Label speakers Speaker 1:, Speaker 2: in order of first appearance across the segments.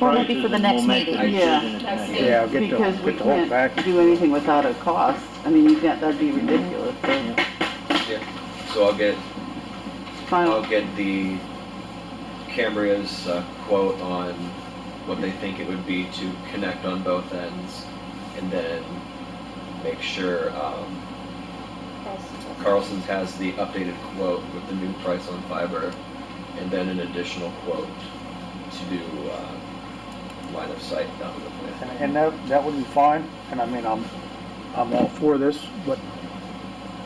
Speaker 1: Well, maybe for the
Speaker 2: prices and
Speaker 1: next
Speaker 2: we'll make the
Speaker 1: meeting.
Speaker 3: Yeah.
Speaker 2: decision at the next meeting.
Speaker 4: Yeah, get the,
Speaker 3: Because we
Speaker 4: get the whole
Speaker 3: can't
Speaker 4: package.
Speaker 3: do anything without a cost. I mean, you can't, that'd be ridiculous. So,
Speaker 5: So I'll get,
Speaker 3: Final,
Speaker 5: I'll get the Cambria's uh, quote on what they think it would be to connect on both ends and then make sure um, Carlson's has the updated quote with the new price on fiber and then an additional quote to do uh, line of sight down to the
Speaker 4: And,
Speaker 5: plant.
Speaker 4: and that, that would be fine, and I mean, I'm, I'm all for this, but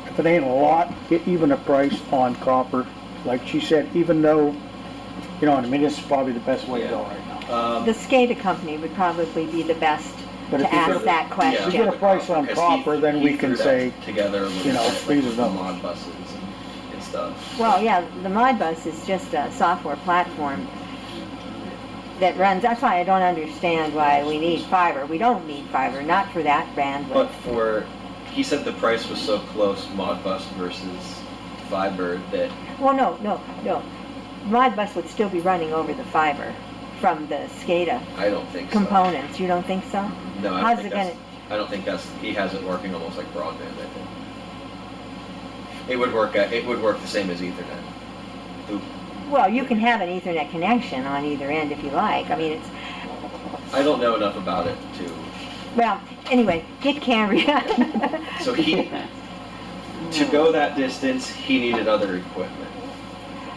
Speaker 4: if it ain't a lot, get even a price on copper. Like she said, even though, you know, what I mean, this is probably the best way to go right now.
Speaker 5: Um,
Speaker 1: The SCADA company would probably be the best
Speaker 4: But if
Speaker 1: to
Speaker 4: you
Speaker 1: ask
Speaker 4: put-
Speaker 1: that
Speaker 5: Yeah,
Speaker 4: If you
Speaker 1: question.
Speaker 4: get a price on
Speaker 5: because he-
Speaker 4: copper, then
Speaker 5: he
Speaker 4: we
Speaker 5: threw
Speaker 4: can
Speaker 5: that
Speaker 4: say,
Speaker 5: Together,
Speaker 4: you
Speaker 5: you
Speaker 4: know,
Speaker 5: know,
Speaker 4: these are
Speaker 5: the
Speaker 4: the-
Speaker 5: mod buses and- and stuff.
Speaker 1: Well, yeah, the Modbus is just a software platform that runs, that's why I don't understand why we need fiber. We don't need fiber, not for that
Speaker 5: But
Speaker 1: bandwidth.
Speaker 5: for, he said the price was so close, Modbus versus fiber, that
Speaker 1: Well, no, no, no. Modbus would still be running over the fiber from the SCADA
Speaker 5: I don't think so.
Speaker 1: components. You don't think so?
Speaker 5: No, I
Speaker 1: How's
Speaker 5: don't think
Speaker 1: it
Speaker 5: that's, I don't think that's, he has it working almost like broadband, I think. It would work, uh, it would work the same as Ethernet.
Speaker 1: Well, you can have an Ethernet connection on either end if you like. I mean, it's,
Speaker 5: I don't know enough about it to,
Speaker 1: well, anyway, get Cambria.
Speaker 5: so he, to go that distance, he needed other equipment.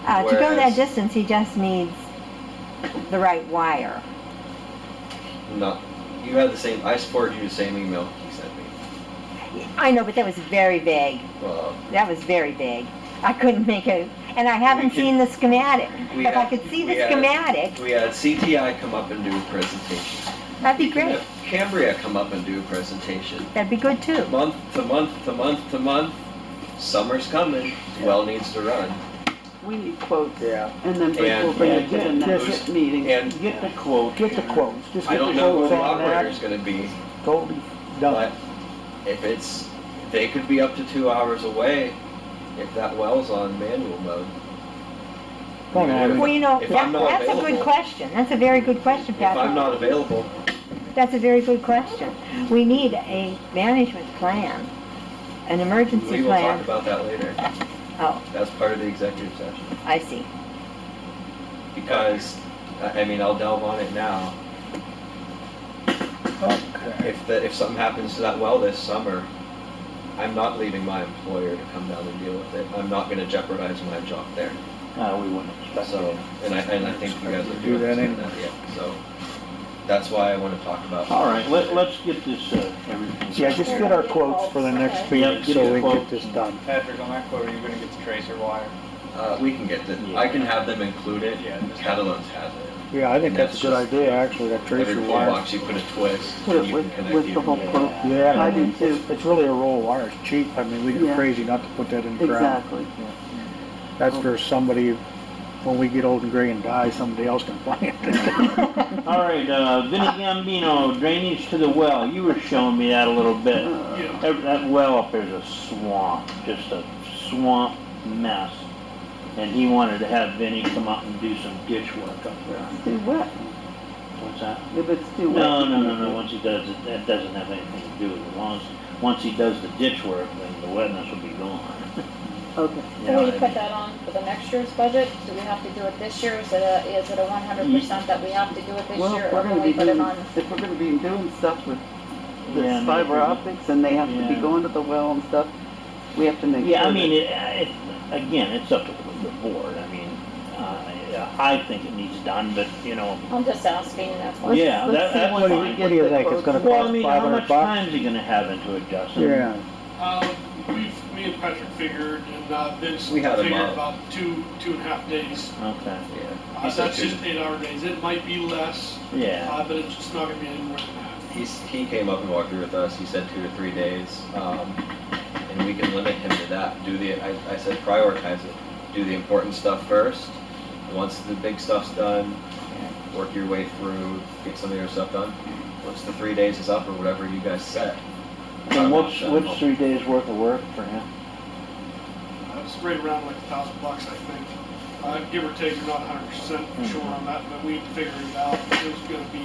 Speaker 1: Uh, to go that
Speaker 5: Whereas-
Speaker 1: distance, he just needs the right wire.
Speaker 5: Not, you had the same, I forwarded you the same email he sent me.
Speaker 1: I know, but that was very vague.
Speaker 5: Well,
Speaker 1: That was very vague. I couldn't make a, and I
Speaker 5: We
Speaker 1: haven't
Speaker 5: can-
Speaker 1: seen the schematic.
Speaker 5: we
Speaker 1: If I
Speaker 5: had-
Speaker 1: could see
Speaker 5: we
Speaker 1: the
Speaker 5: had-
Speaker 1: schematic,
Speaker 5: we had CTI come up and do a presentation.
Speaker 1: that'd be great.
Speaker 5: Have Cambria come up and do a presentation.
Speaker 1: That'd be good too.
Speaker 5: Month to month to month to month, summer's coming, well needs to run.
Speaker 3: we need quotes.
Speaker 4: Yeah.
Speaker 3: And then
Speaker 5: And-
Speaker 3: we'll bring
Speaker 4: Yeah,
Speaker 3: it
Speaker 4: get-
Speaker 3: to the
Speaker 5: yes.
Speaker 3: next meeting.
Speaker 5: And
Speaker 4: get the quote, get the quotes, just
Speaker 5: I
Speaker 4: get the
Speaker 5: don't know who
Speaker 4: quotes
Speaker 5: the
Speaker 4: on
Speaker 5: operator's
Speaker 4: that,
Speaker 5: gonna be,
Speaker 4: totally
Speaker 5: but
Speaker 4: done.
Speaker 5: if it's, they could be up to two hours away if that well's on manual mode.
Speaker 4: Don't know, I mean-
Speaker 1: Well, you know,
Speaker 5: If
Speaker 1: that-
Speaker 5: I'm not
Speaker 1: that's a good
Speaker 5: available-
Speaker 1: question. That's a very good question,
Speaker 5: If I'm
Speaker 1: Patrick.
Speaker 5: not available,
Speaker 1: That's a very good question. We need a management plan, an
Speaker 5: we
Speaker 1: emergency
Speaker 5: will talk
Speaker 1: plan.
Speaker 5: about that later.
Speaker 1: Oh,
Speaker 5: That's part of the executive session.
Speaker 1: I see.
Speaker 5: Because, I I mean, I'll delve on it now.
Speaker 4: Okay.
Speaker 5: If the, if something happens to that well this summer, I'm not leaving my employer to come down and deal with it. I'm not gonna jeopardize my job there.
Speaker 2: No, we wouldn't expect
Speaker 5: So,
Speaker 2: it.
Speaker 5: and I, and I think you guys are
Speaker 4: Do
Speaker 5: doing
Speaker 4: that anyway.
Speaker 5: that, yeah, so. That's why I wanna talk about.
Speaker 2: All right, let, let's get this, uh, everything.
Speaker 4: Yeah, just get our quotes for the next
Speaker 2: Yeah,
Speaker 4: meeting,
Speaker 2: get
Speaker 4: so
Speaker 2: the
Speaker 4: we can get
Speaker 2: quotes.
Speaker 4: this done.
Speaker 6: Patrick, on that quote, are you gonna get the tracer wire?
Speaker 5: Uh, we can get the, I can have them include it.
Speaker 6: Yeah.
Speaker 5: Catalogs has it.
Speaker 4: Yeah, I think that's a good idea, actually, that
Speaker 5: Every
Speaker 4: tracer wire.
Speaker 5: toolbox, you put a twist,
Speaker 3: Put
Speaker 5: and
Speaker 3: it
Speaker 5: you can
Speaker 3: with,
Speaker 5: connect
Speaker 3: with the
Speaker 5: even.
Speaker 3: whole quote.
Speaker 4: Yeah,
Speaker 3: I
Speaker 4: I
Speaker 3: do
Speaker 4: mean,
Speaker 3: too.
Speaker 4: it's, it's really a roll of wire, it's cheap, I mean, we'd be
Speaker 3: Yeah.
Speaker 4: crazy not to put that in the ground.
Speaker 3: Exactly.
Speaker 4: That's for somebody, when we get old and gray and die, somebody else can plant it.
Speaker 2: All right, uh, Vinnie Gambino, drainage to the well, you were showing me that a little bit.
Speaker 3: Uh,
Speaker 2: Ev- That well up there's a swamp, just a swamp mess. And he wanted to have Vinnie come up and do some ditch work up there.
Speaker 3: It's too wet.
Speaker 2: What's that?
Speaker 3: If it's too wet.
Speaker 2: No, no, no, no, once he does it, that doesn't have anything to do with it. Once, once he does the ditch work, then the wetness will be gone.
Speaker 3: Okay.
Speaker 2: You know
Speaker 7: Can we
Speaker 2: what I
Speaker 7: put
Speaker 2: mean?
Speaker 7: that on for the next year's budget? Do we have to do it this year? Is it a, is it a one hundred percent that we have to do it this
Speaker 3: Well,
Speaker 7: year?
Speaker 3: if
Speaker 7: Or
Speaker 3: we're
Speaker 7: can
Speaker 3: gonna
Speaker 7: we
Speaker 3: be
Speaker 7: put it
Speaker 3: doing,
Speaker 7: on?
Speaker 3: if we're gonna be doing stuff with
Speaker 2: Yeah, I
Speaker 3: this
Speaker 2: mean,
Speaker 3: fiber
Speaker 2: if we-
Speaker 3: optics and they have to
Speaker 2: Yeah.
Speaker 3: be going to the well and stuff, we have to make sure.
Speaker 2: Yeah, I
Speaker 3: that-
Speaker 2: mean, it, it, again, it's up to the board, I mean, uh, I think it needs done, but, you know,
Speaker 7: I'm just asking, that's why.
Speaker 3: Let's-
Speaker 2: yeah,
Speaker 3: let's
Speaker 2: that-
Speaker 3: see
Speaker 2: that's
Speaker 3: once we
Speaker 2: fine.
Speaker 3: get
Speaker 4: What do you
Speaker 3: the
Speaker 4: think? It's
Speaker 3: quotes
Speaker 4: gonna
Speaker 3: in.
Speaker 2: well, I mean, how
Speaker 4: 500
Speaker 2: much
Speaker 4: bucks?
Speaker 2: time is he gonna have into it, Justin?
Speaker 4: Yeah,
Speaker 8: Uh, we've, me and Patrick figured, and uh, Vince
Speaker 5: We had a
Speaker 8: figured
Speaker 5: month.
Speaker 8: about two, two and a half days.
Speaker 2: Okay,
Speaker 5: Yeah. He
Speaker 8: Uh,
Speaker 5: said
Speaker 8: that's
Speaker 5: two,
Speaker 8: just eight-hour days. It might be less,
Speaker 2: yeah,
Speaker 8: uh, but it's just not gonna be any more than that.
Speaker 5: He's, he came up and walked through with us, he said two to three days, um, and we can limit him to that, do the, I, I said prioritize it. Do the important stuff first, once the big stuff's done, work your way through, get some of your stuff done. Once the three days is up or whatever you guys set. Um,
Speaker 2: and what's, what's three days worth of work for him?
Speaker 8: Uh, It's right around like a
Speaker 5: Hmm.
Speaker 8: thousand bucks, I think. Uh, give or take, we're not hundred percent sure on that, but we figured it out. was gonna be